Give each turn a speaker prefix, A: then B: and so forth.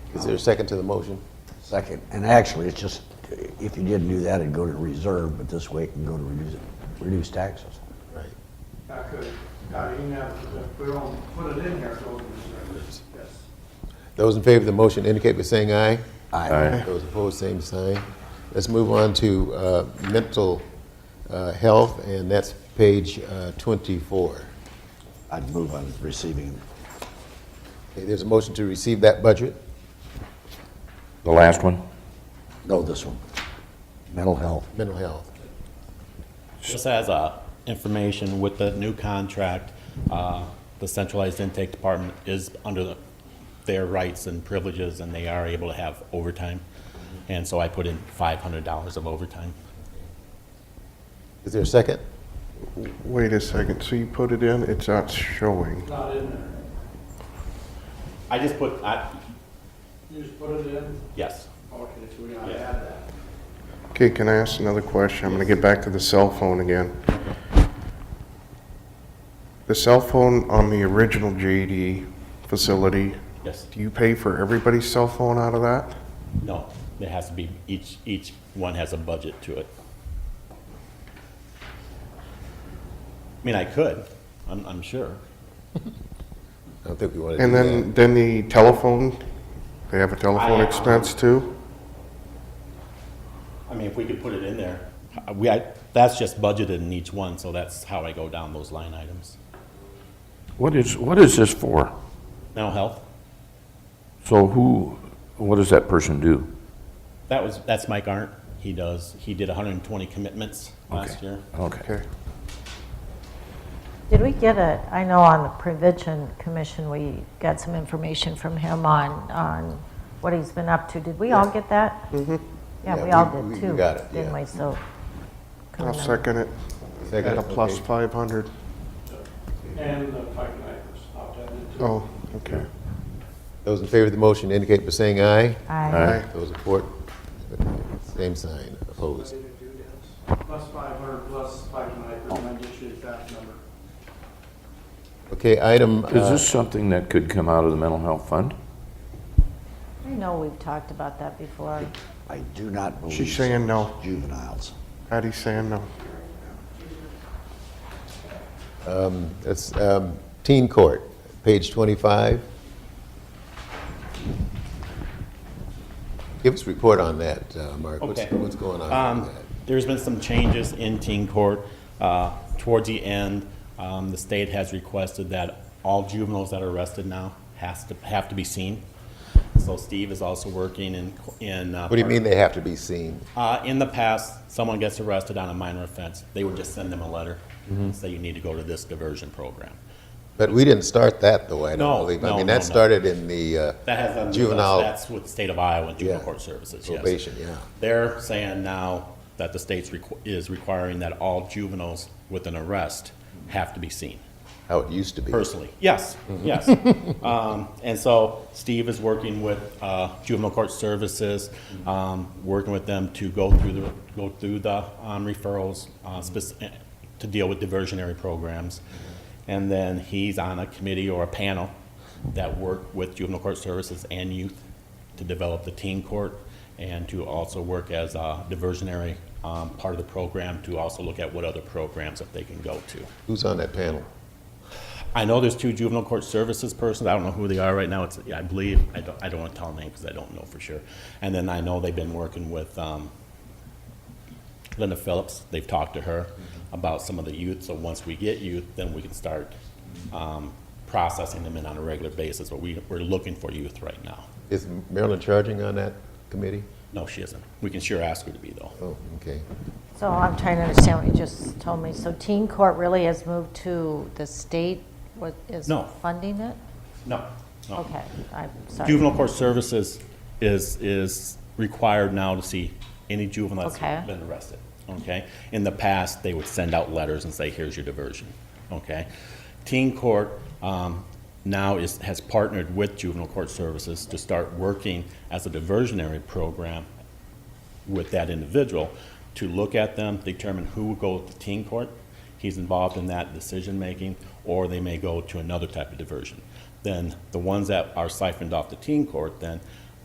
A: Is there a second to the motion?
B: Second, and actually, it's just, if you didn't do that, it'd go to reserve, but this way it can go to reduce, reduce taxes.
A: Right.
C: I could, I mean, uh, we don't put it in here, so it's, yes.
A: Those in favor of the motion indicate by saying aye.
B: Aye.
A: Those opposed, same sign. Let's move on to uh, mental uh, health, and that's page uh, 24.
B: I'd move on receiving.
A: Okay, There's a motion to receive that budget.
D: The last one?
B: No, this one. Mental health.
A: mental health.
E: Just as uh, information with the new contract, uh, the centralized intake department is under the- their rights and privileges, and they are able to have overtime. And so I put in $500 of overtime.
A: Is there a second?
F: Wait a second, so you put it in, it's not showing.
C: Not in there.
E: I just put, I-
C: You just put it in,
E: yes,
C: okay, so we gotta
E: Yeah.
C: add that.
F: Okay, can I ask another question? I'm gonna get back to the cell phone again. The cell phone on the original JD facility,
E: yes,
F: do you pay for everybody's cell phone out of that?
E: no, it has to be, each, each one has a budget to it. I mean, I could, I'm I'm sure.
A: I don't think we want to do
F: And
A: that.
F: then, then the telephone, they have a telephone
E: I-
F: expense too?
E: I mean, if we could put it in there, Uh, we, I, that's just budgeted in each one, so that's how I go down those line items.
D: What is, what is this for?
E: Mental health,
D: So who, what does that person do?
E: that was, that's Mike Arndt, he does, he did hundred and twenty commitments last year.
D: Okay.
F: Okay.
G: Did we get a, I know on the Prevention Commission, we got some information from him on, on what he's been up to. Did we all get that? Mm-hmm.
A: Yeah,
G: Yeah, we
A: we-
G: all
A: we- we
G: did too.
A: got it,
G: Didn't
A: yeah.
G: we, so.
F: I'll second it.
A: Second,
F: At a plus
A: okay.
F: five hundred.
C: And the Pike Knifers, I'll add it too.
F: Oh, okay.
A: Those in favor of the motion indicate by saying aye.
G: I,
F: Aye.
A: Those opposed, same sign, opposed.
C: Plus five hundred, plus Pike Knifers, and I get you the exact number.
A: Okay, item,
D: Is
A: uh,
D: this something that could come out of the mental health fund?
G: I know we've talked about that before.
B: I do not believe.
F: She's saying no.
B: Juveniles.
F: Patty's saying no.
A: it's um, teen court, page 25. Give us a report on that, uh, Mark. What's-
E: Okay.
A: What's going on with
E: Um,
A: that?
E: There's been some changes in teen court. Uh, Towards the end, um, the state has requested that all juveniles that are arrested now has to, have to be seen. So Steve is also working in, in.
A: What do you mean they have to be seen?
E: Uh, in the past, someone gets arrested on a minor offense, they would just send them a letter,
A: Mm-hmm.
E: and say you need to go to this diversion program.
A: But we didn't start that, though, I
E: No,
A: don't believe. I
E: no,
A: mean,
E: no,
A: that
E: no.
A: started in the uh,
E: That has nothing to do with us.
A: juvenile
E: That's with the state of Iowa and juvenile
A: Yeah.
E: court services, yes.
A: probation, yeah.
E: They're saying now that the state's requ- is requiring that all juveniles with an arrest have to be seen
A: How it used to be.
E: personally. Yes, yes. Um, And so Steve is working with uh, juvenile court services, um, working with them to go through the, go through the um, referrals, uh, spec- to deal with diversionary programs. And then he's on a committee or a panel that work with juvenile court services and youth to develop the teen court and to also work as a diversionary um, part of the program, to also look at what other programs that they can go to.
A: Who's on that panel?
E: I know there's two juvenile court services persons, I don't know who they are right now, it's, I believe, I don't, I don't wanna tell them because I don't know for sure. And then I know they've been working with, um, Linda Phillips, they've talked to her about some of the youth, so once we get youth, then we can start, um, processing them in on a regular basis, but we, we're looking for youth right now.
A: Is Maryland Charging on that committee?
E: No, she isn't, we can sure ask her to be though.
A: Oh, okay.
G: So I'm trying to understand what you just told me. So teen court really has moved to the state, what is
E: No.
G: funding it?
E: No, no.
G: Okay, I'm sorry.
E: Juvenile court services is, is required now to see any juvenile
G: Okay.
E: that's been arrested, okay? In the past, they would send out letters and say, here's your diversion, okay? Teen court um, now is, has partnered with juvenile court services to start working as a diversionary program with that individual to look at them, determine who will go to teen court. He's involved in that decision-making, or they may go to another type of diversion. Then the ones that are siphoned off the teen court, then